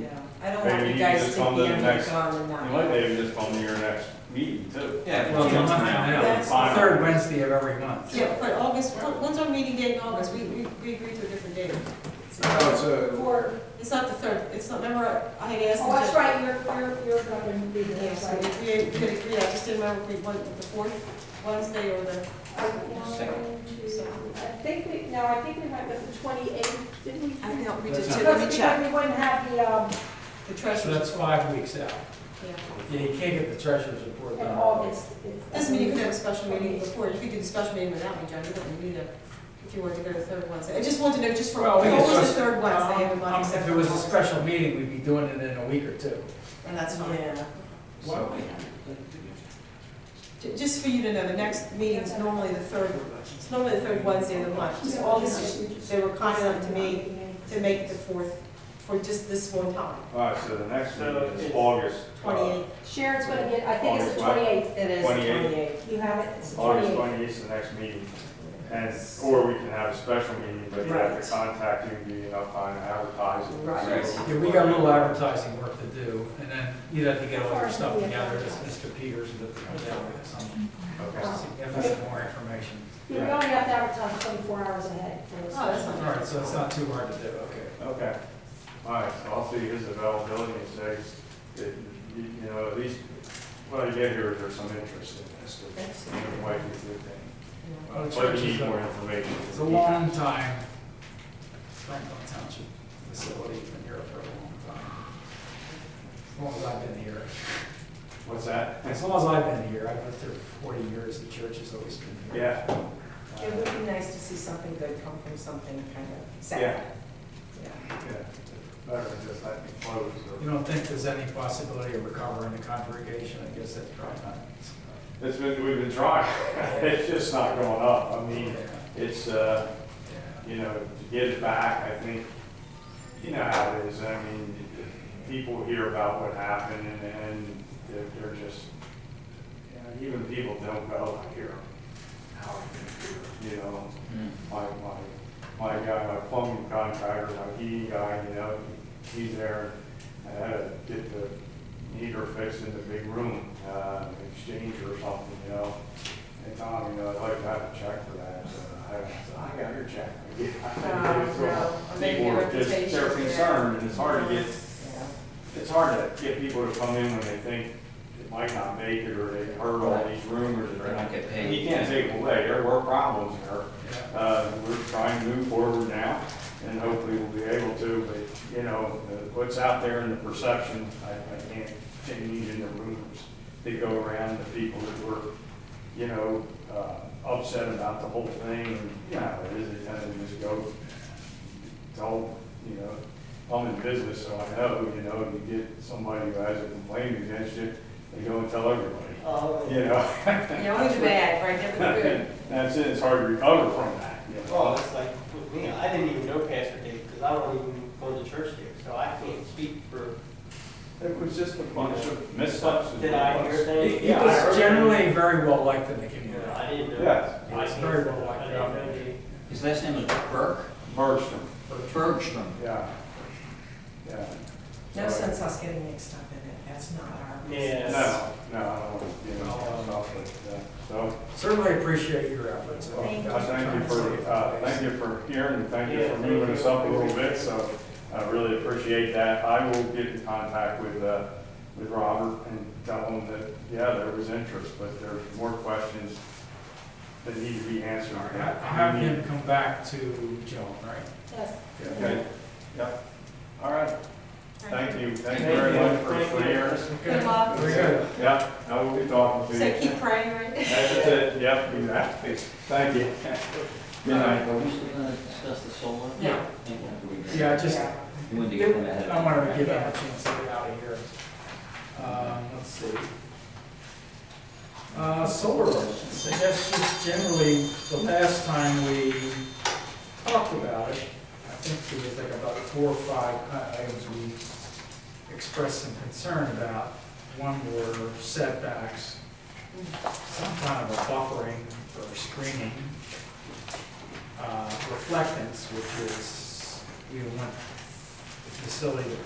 don't want Maybe you you guys just to come be to the next- undergone and You not. might even just come to your next meeting too. Yeah. Well, no, I- I know. That's- Fine. Third Wednesday of every month. Yeah, but August, what- when's our meeting date in August? We, we, we agreed to a different date. No, Oh, it's a, Or, It's not the third, it's not, remember, I had asked. oh, them to- that's right, you're, you're, you're going to be there, Yeah, so right? we we could agree, I just didn't remember if we went with the fourth Wednesday or the, I want to- I think we, no, I think we went with the twenty-eighth, didn't we? I know, we That's just not- did, let Because me because check, we wouldn't have the, um, the So treasurer's. that's five weeks out. yeah. Yeah, you can't get the treasurer's report in done. August. Doesn't mean you could have a special meeting before, you could do the special meeting without me, John, you don't need it, if you wanted to go to the third Wednesday. I just wanted to know, just for, Well, we what can was the just- third Wednesday of the Um, month? except If it for was a August? special meeting, we'd be doing it in a week or two. And that's fine. so, Ju- Just for you to know, the next meeting's normally the third, it's normally the third Wednesday of the month, just August, just- they were kind enough to me to make it the fourth, for just this one time, Alright, so the next So meeting is it's- August. uh, twenty-eight. Sharon's gonna get, I think it's August the what? twenty-eighth, It is 28. twenty-eight. you have it, it's the August twenty-eighth. twenty-eighth is the next meeting. And, or we can have a special meeting, but you have Right. to contact you, and give you enough time to advertise. it. Right. So- Yeah, we got a little advertising work to do, and then you'd have to get all your stuff together, that's Mr. Peters, and that's, that's some Okay. significant more information. You only have to advertise twenty-four hours ahead for this. Oh, that's All not right, so it's not too hard to do, okay. Okay. Alright, so I'll see his availability and say, that, you you know, at least, what I get here is there's some interest in this. which That's- might be a good thing. yeah. Well, the But church we is need a- more information. It's a long time, Franklin Township facility, has been here for a long time. As long as I've been here. What's that? As long as I've been here, I've lived here for 40 years, the church has always been here. Yeah. It would be nice to see something good come from something kind of Yeah. sad. Yeah. Yeah. Better than just let me close or. You don't think there's any possibility of recovering the congregation? I guess that's probably not. It's been, we've been trying, it's just not going up, I mean, Yeah, it's, uh, yeah. you know, to get it back, I think, you know how it is, I mean, people hear about what happened and, and they're, they're just, you know, even people don't go, I hear, how are you, you know? my, my, my guy, my plumbing contractor, my heating guy, you know, he's there. I had to get the heater fixed in the big room, uh, exchange or something, you know. And Tom, you know, I'd like to have a check for that. So I said, I got your check. Oh, no. I made People your are just, reputation, they're yeah. concerned and it's hard to get Yeah. it's hard to get people to come in when they think it might not make it, or they heard all these rumors. or They're not getting paid. You can't take it away, there were problems there. Uh, we're trying to move forward now, and hopefully we'll be able to, but, you know, the- what's out there in the perception, I, I can't change in the rumors that go around the people that were, you know, uh, upset about the whole thing, and, you know, it is, it kind of just go, told, you know, I'm in business, so I know, you know, if you get somebody who has a complaint against you, they go and tell everybody, Oh. you know? Yeah, only the bad, right, never the good. That's it, it's hard to recover from that, you know? Well, it's Oh, like with me, I didn't even know Pastor Dave because I don't even go to church here, so I can't speak for, It was just a bunch of missteps. and did I hear He- things? He was generally very well liked in the community. I didn't know. Yes. I It's can't- very well liked. I didn't know the- his last name was Burke? Burst them, Bergstrom. yeah. Yeah. No So- sense us getting mixed up in it, that's not our Yeah. business. No, no, I don't, want to, you know, off it, yeah. so, Certainly appreciate your efforts. well, I uh, thank you for, uh, thank you for hearing, and thank you Yeah, for thank moving you. us up a little bit, so I really appreciate that. I will get in contact with, uh, with Robert and tell him that, yeah, there was interest, but there's more questions that need to be answered. All right, ha- Have him come back to Joan, right? Yes. Okay, yeah, all right, thank you, thank you Thank very you. much for Thank for you. hearing us. Good luck. Very good. Yeah, I will be talking to So you. keep praying, right? That's it, yep, exactly, thank you. Good night. Are we still gonna discuss the solar? Yeah. Yeah, just, You wanted to get one ahead of. I wanted to give him a chance to get out of here. Um, let's see. Uh, solar ordinance, I guess just generally, the last time we talked about it, I think there was like about four or five uh, items we expressed some concern about. One were setbacks, some kind of a buffering or screening, uh, reflectance, which is, we want the facility to